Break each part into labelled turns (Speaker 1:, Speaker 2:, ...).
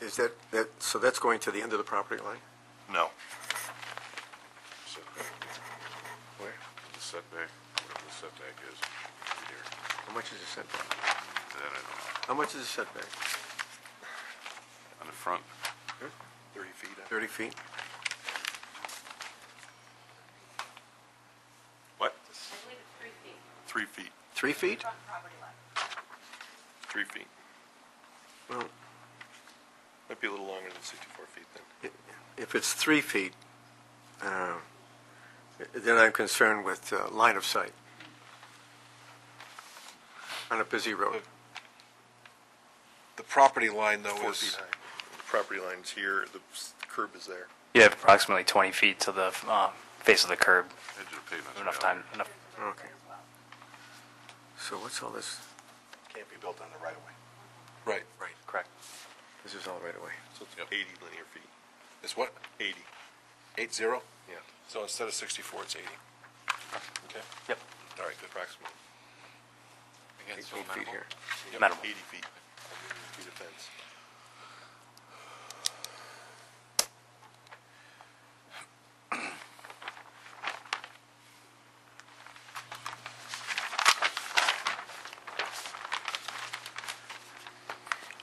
Speaker 1: Is that, that, so that's going to the end of the property line?
Speaker 2: No.
Speaker 3: Setback,
Speaker 1: Where?
Speaker 3: the setback, whatever the setback is here.
Speaker 1: How much is the setback?
Speaker 3: That I don't know.
Speaker 1: How much is the setback?
Speaker 3: On the front,
Speaker 2: Thirty feet.
Speaker 1: 30 feet?
Speaker 3: what?
Speaker 4: I believe it's three feet
Speaker 2: Three feet.
Speaker 1: Three feet?
Speaker 4: from property line.
Speaker 2: Three feet.
Speaker 1: Well,
Speaker 2: Might be a little longer than sixty-four feet then.
Speaker 1: i- if it's three feet, um, then I'm concerned with uh, line of sight on a busy road.
Speaker 5: The property line, though,
Speaker 2: Four
Speaker 5: is,
Speaker 2: feet high. The Property line's here, the s- curb is there.
Speaker 6: You have approximately 20 feet to the uh, face of the curb.
Speaker 3: edge of the pavement.
Speaker 6: Enough time, enough
Speaker 1: Okay. So what's all this?
Speaker 2: Can't be built on the right of way.
Speaker 5: right,
Speaker 6: Correct.
Speaker 1: This is all right away.
Speaker 2: So it's
Speaker 3: Yep.
Speaker 2: eighty linear feet.
Speaker 5: is what,
Speaker 2: Eighty,
Speaker 5: eight zero?
Speaker 2: yeah.
Speaker 5: So instead of sixty-four, it's eighty. Okay,
Speaker 6: Yep.
Speaker 5: all right, good.
Speaker 2: Approximately.
Speaker 1: Eight feet here.
Speaker 2: Yep,
Speaker 6: Minimal.
Speaker 2: Eighty feet. Feet of fence.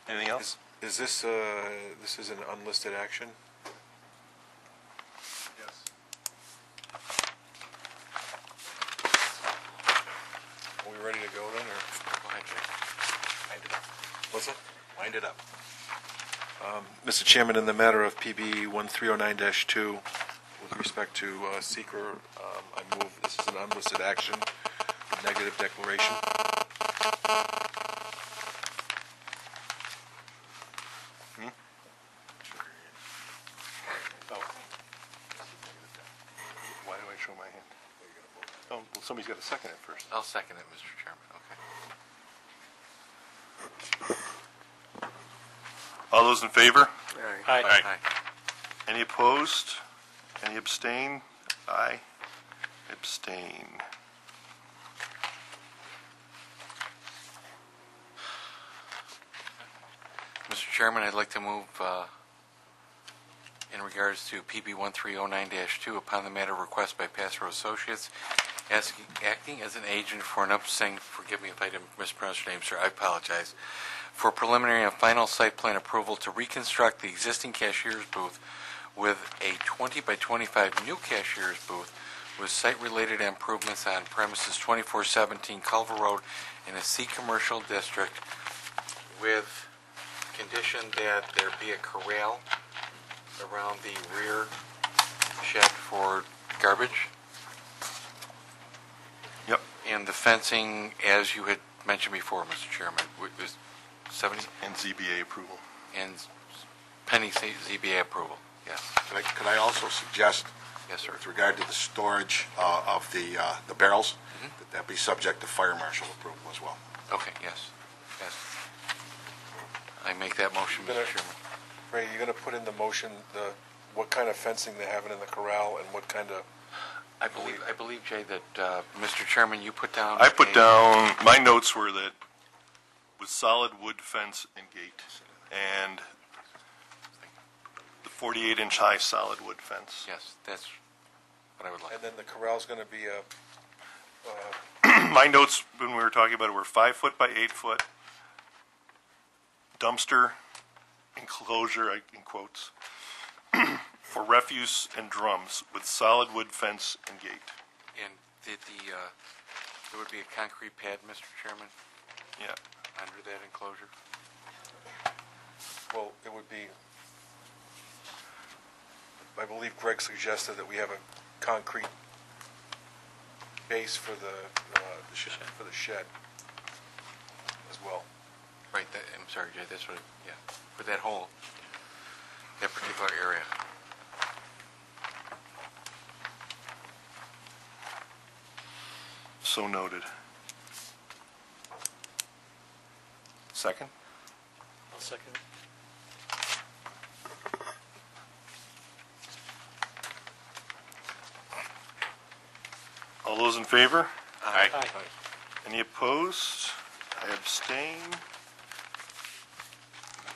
Speaker 2: Anything else?
Speaker 5: Is, is this, uh, this is an unlisted action?
Speaker 2: Yes.
Speaker 5: Are we ready to go then, or? What's that?
Speaker 2: Wind it up.
Speaker 5: Mr. Chairman, in the matter of PB 1309-2, with respect to uh, seeker, um, I move, this is an unlisted action, negative declaration.
Speaker 2: Why do I show my hand? Oh, well, somebody's got to second it first.
Speaker 7: I'll second it, Mr. Chairman, okay.
Speaker 2: All those in favor?
Speaker 1: All right.
Speaker 7: Aye.
Speaker 2: Any opposed? Any abstain? I abstain.
Speaker 7: Mr. Chairman, I'd like to move uh, in regards to PB 1309-2 upon the matter of request by Passrow Associates, asking, acting as an agent for an upsetting, forgive me if I didn't mispronounce your name, sir, I apologize, for preliminary and final site plan approval to reconstruct the existing cashier's booth with a 20 by 25 new cashier's booth with site-related improvements on premises 2417 Culver Road in a C commercial district with condition that there be a corral around the rear shed for garbage,
Speaker 2: Yep.
Speaker 7: and the fencing, as you had mentioned before, Mr. Chairman, wa- was 70,
Speaker 2: And ZBA approval.
Speaker 7: and pending C- ZBA approval. Yes,
Speaker 8: Could I- Could I also suggest,
Speaker 7: yes, sir.
Speaker 8: with regard to the storage uh, of the uh, the barrels, that that be subject to fire marshal approval as well?
Speaker 7: Okay, yes, yes. I make that motion, Mr. Chairman.
Speaker 5: Ray, you're gonna put in the motion, the, what kind of fencing they're having in the corral and what kind of,
Speaker 7: I believe, I believe, Jay, that, uh, Mr. Chairman, you put down...
Speaker 2: I put
Speaker 7: a-
Speaker 2: down, my notes were that with solid wood fence and gate, and the 48-inch high solid wood fence.
Speaker 7: Yes, that's what I would like.
Speaker 5: and then the corral's gonna be a,
Speaker 2: My notes, when we were talking about it, were five foot by eight foot dumpster enclosure, I- in quotes, for refuse and drums with solid wood fence and gate.
Speaker 7: And did the, uh, there would be a concrete pad, Mr. Chairman,
Speaker 2: Yeah.
Speaker 7: under that enclosure?
Speaker 5: well, it would be, I believe Greg suggested that we have a concrete base for the, uh, the sh- for the shed as well.
Speaker 7: Right, that, I'm sorry, Jay, that's what, yeah, for that whole, that particular area.
Speaker 2: So noted. Second? I'll second. All those in favor?
Speaker 7: Aye.
Speaker 2: Any opposed? I abstain.